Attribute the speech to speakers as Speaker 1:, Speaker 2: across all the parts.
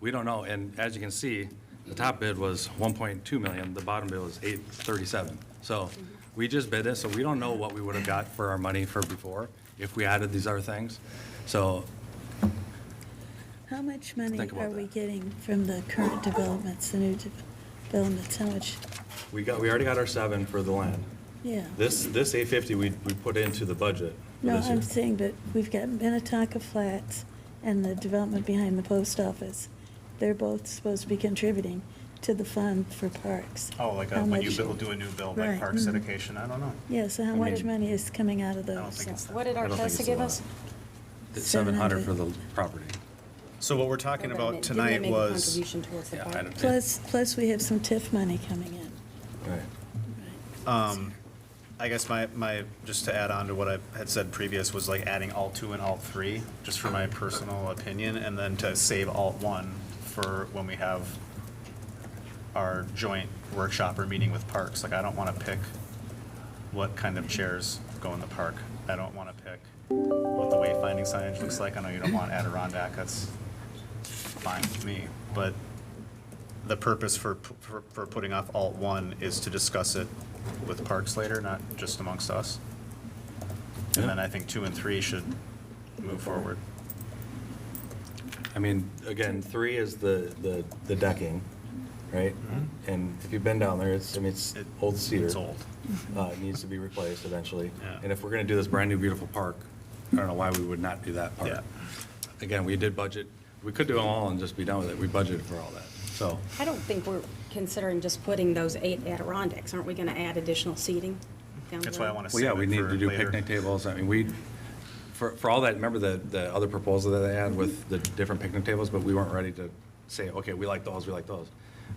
Speaker 1: We don't know, and as you can see, the top bid was 1.2 million, the bottom bid was 837. So we just bid this, so we don't know what we would have got for our money for before if we added these other things. So
Speaker 2: How much money
Speaker 1: Think about
Speaker 2: are we
Speaker 1: that.
Speaker 2: getting from the current developments, the new de- developments? How much,
Speaker 1: we got, we already got our seven for the land.
Speaker 2: yeah?
Speaker 1: This, this 850, we, we put into the budget for
Speaker 2: No,
Speaker 1: this year.
Speaker 2: I'm saying, but we've got Minnetonka Flats and the development behind the post office. They're both supposed to be contributing to the fund for parks.
Speaker 3: Oh,
Speaker 1: uh,
Speaker 3: like
Speaker 2: How
Speaker 3: a- when you
Speaker 2: much-
Speaker 3: build, do a new build,
Speaker 2: Right,
Speaker 3: like Parks
Speaker 2: mhm.
Speaker 3: dedication, I don't know.
Speaker 2: Yeah, so how
Speaker 1: I
Speaker 2: much
Speaker 1: mean-
Speaker 2: money is coming out of
Speaker 3: don't
Speaker 2: those?
Speaker 3: think it's that.
Speaker 4: What did
Speaker 1: I don't think it's
Speaker 4: Artesa
Speaker 1: a
Speaker 4: give
Speaker 1: lot.
Speaker 4: us?
Speaker 1: It's 700 for
Speaker 2: 700.
Speaker 1: the property.
Speaker 3: So what we're talking
Speaker 4: Didn't they
Speaker 3: about tonight
Speaker 4: make a
Speaker 3: was,
Speaker 4: Contribution towards the
Speaker 1: Yeah, I
Speaker 4: park.
Speaker 1: don't-
Speaker 2: Plus, plus we have some TIF money coming in.
Speaker 3: um, I guess my, my, just to add on to what I had said previous, was like adding alt two and alt three, just for my personal opinion, and then to save alt one for when we have our joint workshop or meeting with parks. Like, I don't want to pick what kind of chairs go in the park. I don't want to pick what the wayfinding signage looks like. I know you don't want Adirondack, that's fine with me. But the purpose for, for, for putting off alt one is to discuss it with parks later, not just amongst us. And then I think two and three should move forward.
Speaker 1: I mean, again, three is the, the, the decking, right? And if you've been down there, it's, I mean, Mm-hmm. it's
Speaker 3: It-
Speaker 1: old cedar.
Speaker 3: It's old.
Speaker 1: Uh, it needs to be replaced eventually.
Speaker 3: Yeah.
Speaker 1: And if we're gonna do this brand-new beautiful park, I don't know why we would not do that
Speaker 3: Yeah.
Speaker 1: part. Again, we did budget, we could do them all and just be done with it. We budgeted for all that, so.
Speaker 4: I don't think we're considering just putting those eight Adirondacks. Aren't we going to add additional seating down
Speaker 3: That's
Speaker 4: the
Speaker 3: why I
Speaker 4: road?
Speaker 3: want to
Speaker 1: Well, yeah,
Speaker 3: save
Speaker 1: we
Speaker 3: it
Speaker 1: need
Speaker 3: for
Speaker 1: to do
Speaker 3: later.
Speaker 1: picnic tables. I mean, we, for, for all that, remember the, the other proposal that they had with the different picnic tables, but we weren't ready to say, okay, we like those, we like those.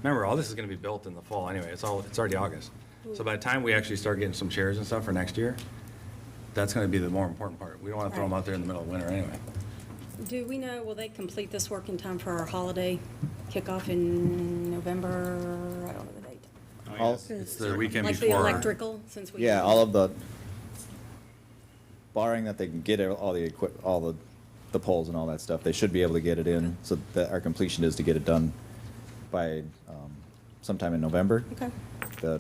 Speaker 1: Remember, all this is gonna be built in the fall anyway. It's all, it's already August. So by the time we actually start getting some chairs and stuff for next year, that's gonna be the more important part. We don't wanna throw them out there in the middle of winter anyway.
Speaker 4: Do we know, will they complete this work in time for our holiday kickoff in November? I don't know the date.
Speaker 3: Oh,
Speaker 5: All-
Speaker 3: yes.
Speaker 1: It's the weekend
Speaker 4: Like the
Speaker 1: before.
Speaker 4: electrical, since we.
Speaker 5: Yeah, all of the, barring that they can get all the equip, all the, the poles and all that stuff, they should be able to get it in, so that our completion is to get it done by, um, sometime in November.
Speaker 4: Okay.
Speaker 5: The,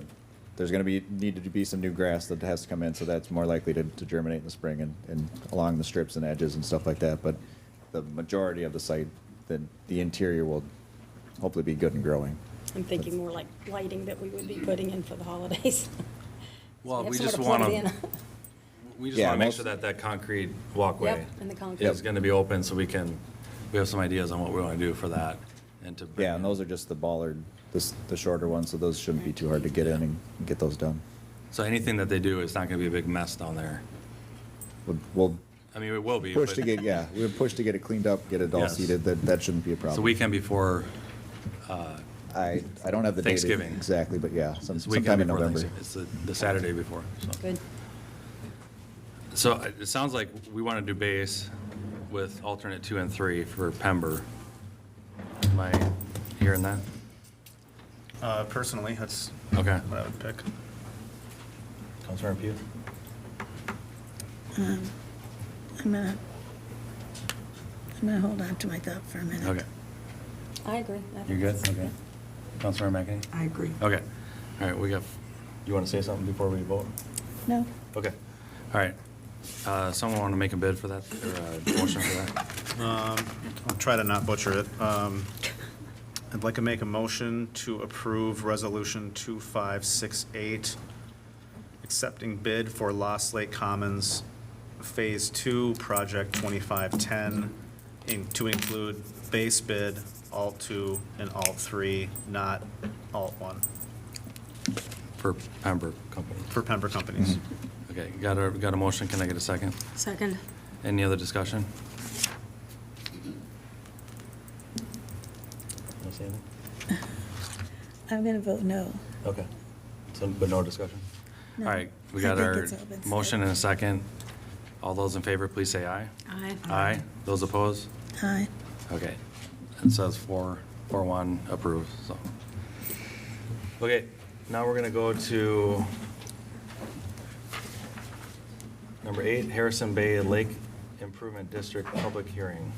Speaker 5: there's gonna be, needed to be some new grass that has to come in, so that's more likely to, to germinate in the spring and, and along the strips and edges and stuff like that, but the majority of the site, the, the interior will hopefully be good and growing.
Speaker 4: I'm thinking more like lighting that we would be putting in for the holidays.
Speaker 1: Well,
Speaker 4: Have
Speaker 1: we
Speaker 4: somewhere
Speaker 1: just
Speaker 4: plug it
Speaker 1: wanna,
Speaker 4: in.
Speaker 1: we just
Speaker 5: Yeah,
Speaker 1: wanna make
Speaker 5: most-
Speaker 1: sure that that concrete walkway
Speaker 4: Yep, and the concrete.
Speaker 1: is gonna be open so we can, we have some ideas on what we wanna do for that and to. bring
Speaker 5: Yeah, and
Speaker 1: in.
Speaker 5: those are just the bollard, the, s- the shorter ones, so those shouldn't be too hard to get in and and get those done.
Speaker 1: So anything that they do is not going to be a big mess down there.
Speaker 5: We'll- We'll
Speaker 1: I mean, it will be.
Speaker 5: push
Speaker 1: but
Speaker 5: to get, yeah, we'll push to get it cleaned up, get it all
Speaker 1: Yes.
Speaker 5: seated, that, that shouldn't be a
Speaker 1: It's
Speaker 5: problem.
Speaker 1: the weekend before,
Speaker 5: I, I don't have the date
Speaker 1: Thanksgiving.
Speaker 5: exactly, but yeah, some-
Speaker 1: it's the weekend
Speaker 5: sometime in
Speaker 1: before
Speaker 5: November.
Speaker 1: Thanksgiving. It's the, the Saturday before, so.
Speaker 4: Good.
Speaker 1: So uh, it it sounds like we want to do base with alternate two and three for Pember. Am I hearing that?
Speaker 3: Uh, personally, that's
Speaker 1: Okay.
Speaker 3: what I would pick.
Speaker 1: Councilor Pugh?
Speaker 2: Um, I'm gonna, I'm gonna hold on to my thought for a minute.
Speaker 1: Okay.
Speaker 4: I agree. I think
Speaker 1: You're good?
Speaker 4: that's-
Speaker 1: Okay. Councilor McEnany?
Speaker 6: I agree.
Speaker 1: Okay. All right, we got, you want to say something before we vote?
Speaker 2: No,
Speaker 1: Okay. All right. Uh, Someone want to make a bid for that, or a motion for that?
Speaker 3: I'll try to not butcher it. Um, I'd like to make a motion to approve Resolution 2568, accepting bid for Lost Lake Commons Phase 2, Project 2510, in- to include base bid, alt 2 and alt 3, not alt 1,
Speaker 1: For Pembroke Company.
Speaker 3: for Pember companies.
Speaker 1: Okay, got a, got a motion, can I get a second?
Speaker 4: Second.
Speaker 1: Any other discussion?
Speaker 2: I'm gonna vote no.
Speaker 1: Okay, so, but no discussion? All
Speaker 2: No.
Speaker 1: right, we
Speaker 2: I
Speaker 1: got
Speaker 2: think
Speaker 1: our
Speaker 2: it's all been said.
Speaker 1: motion and a second. All those in favor, please say aye.
Speaker 4: Aye.
Speaker 1: Aye, those opposed?
Speaker 2: Aye.
Speaker 1: Okay, it says four, four one approved, so. Okay, now we're gonna go to number eight, Harrison Bay Lake Improvement District Public Hearing.